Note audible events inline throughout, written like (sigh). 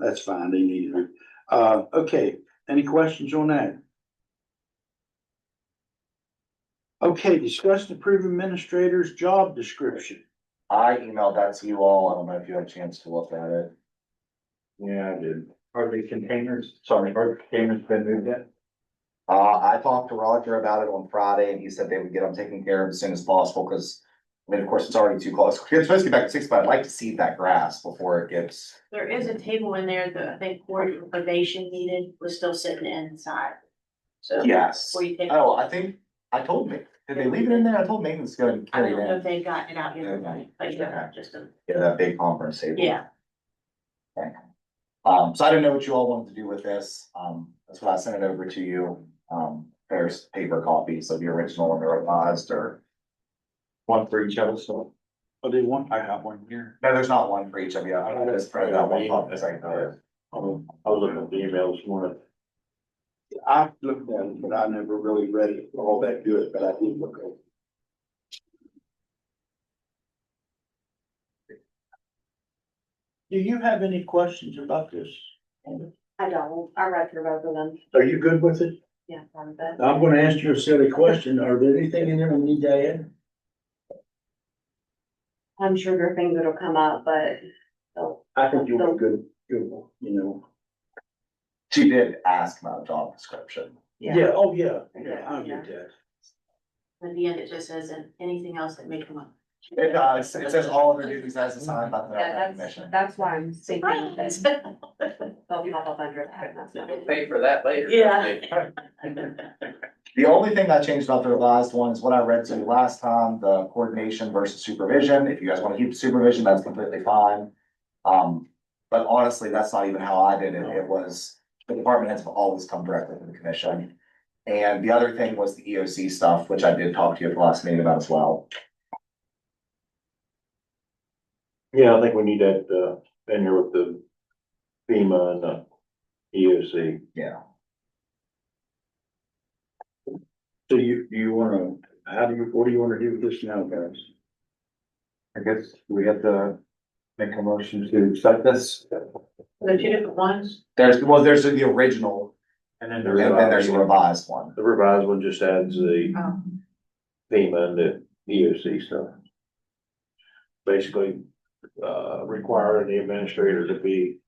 That's fine, they need it. Uh, okay, any questions on that? Okay, discuss the approved administrator's job description. I emailed that to you all. I don't know if you had a chance to look at it. Yeah, I did. Are the containers, sorry, are containers been moved yet? Uh, I talked to Roger about it on Friday and he said they would get them taken care of as soon as possible because. I mean, of course, it's already too close. (laughs) It's supposed to get back to six, but I'd like to see that grass before it gets. There is a table in there that I think court information needed was still sitting inside. So. Yes. Before you take. Oh, I think, I told me, did they leave it in there? I told Megan to go and I carry don't know if it they got it out yet, Okay. but yeah, just a, in. Yeah, that big conference table. yeah, Um, so I didn't know what you all wanted to do with this. Um, that's why I sent it over to you. Um, there's paper copies of the original and the revised or. One for each other, so. Oh, they want, I got one here. No, there's not one for each of you. I just printed that one pop uh, that's right there. Um, I was looking at the emails this morning. I looked at it, but I never really read it all that good, but I did look at it. Do you have any questions about this? I don't, I read through both of them, Are you good with it? yeah, I'm good. I'm gonna ask you a silly question. Are there anything in there we need to add? I'm sure there are things that'll come up, but the I think you were good, good, one, you know. She did ask about job description. Yeah. oh, yeah, yeah, I get that. at the end it just says, and anything else that may come up. It does. It says all of her duties as assigned by the Yeah, Maryland that's, Commission. that's why I'm thinking that Surprise! they'll pop up under that, and that's not. Pay for that later. (laughs) Yeah. The only thing I changed about the revised one is what I read to you last time, the coordination versus supervision. If you guys want to keep supervision, that's completely fine. Um, but honestly, that's not even how I did it. It was, the department heads have always come directly to the commission. And the other thing was the EOC stuff, which I did talk to you at the last meeting about as well. Yeah, I think we need that, uh, in here with the FEMA and uh, the EOC. Yeah. So you, you wanna, how do you, what do you wanna do with this now, guys? I guess we have to make a motion to accept this. The two different ones, There's, well, there's the original And then and then there's uh, the revised one. The revised one just adds the Oh. FEMA and the EOC stuff. Basically, uh, requiring the administrator to be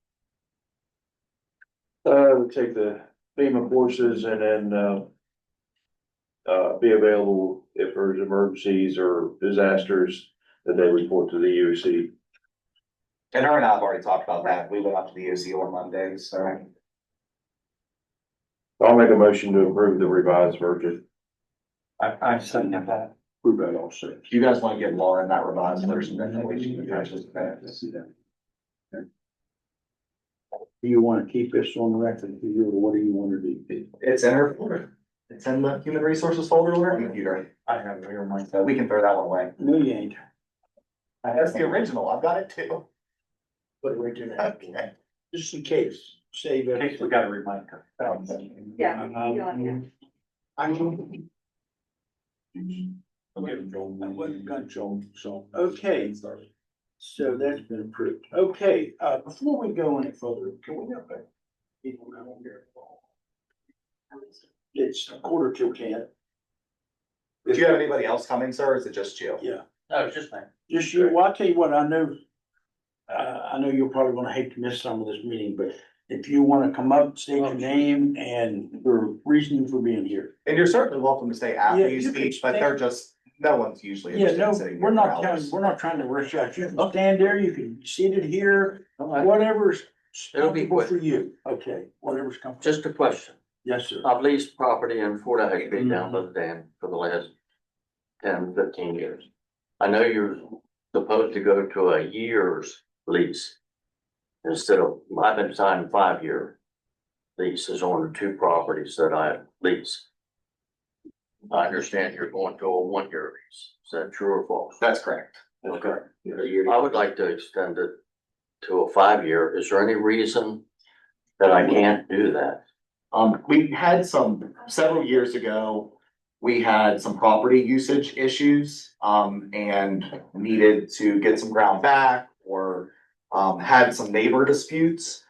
uh, take the FEMA courses and then, uh, uh, be available if there's emergencies or disasters that they report to the E EOC. And her and I have already talked about that. We went up to the EOC on Monday, so. I'll make a motion to approve the revised version. I, I said that. We read all six. If you guys want to give Lauren that revised version, then we should actually. Do you wanna keep this on record, do you, or what do you wanna do? It's in her folder. It's in the human resources folder on her computer. I have it here on So we can throw that one away. No, you ain't. That's the original. I've got it too. But we're doing that. Just in case, save In case we it. got a reminder. Yeah. Um, I don't- Okay, I wasn't gonna joke, so, okay, so that's been approved. Okay, uh, before we go any further, can we have a? people down here? It's a quarter till ten, Do you have anybody else coming, sir? or Is it just you? yeah. No, it's just me. Just you, well, I'll tell you what, I know, uh, I know you're probably gonna hate to miss some of this meeting, but if you wanna come up, state Oh, your name and your reasoning for being here. And you're certainly welcome to stay after Yeah, you you can speak, but stay. they're just, no one's usually Yeah, interested no, in sitting we're here for not, telling- hours. we're not trying to rush you out, you can stand there, you can sit it here, Alright, whatever's It'll be comfortable quick. for you, okay, whatever's comfortable, Just a question. yes, sir. I've leased property in Fort Huckabee down by the dam for the last 10, 15 years. I know you're supposed to go to a year's lease. Instead of, I've been signing five-year leases on the two properties that I lease. I understand you're going to a one-year lease. Is that true or false? That's correct. Okay. I would like to extend it to a five-year. Is there any reason that I can't do that? Um, we had some, several years ago, we had some property usage issues, um, and needed to get some ground back or um, had some neighbor disputes.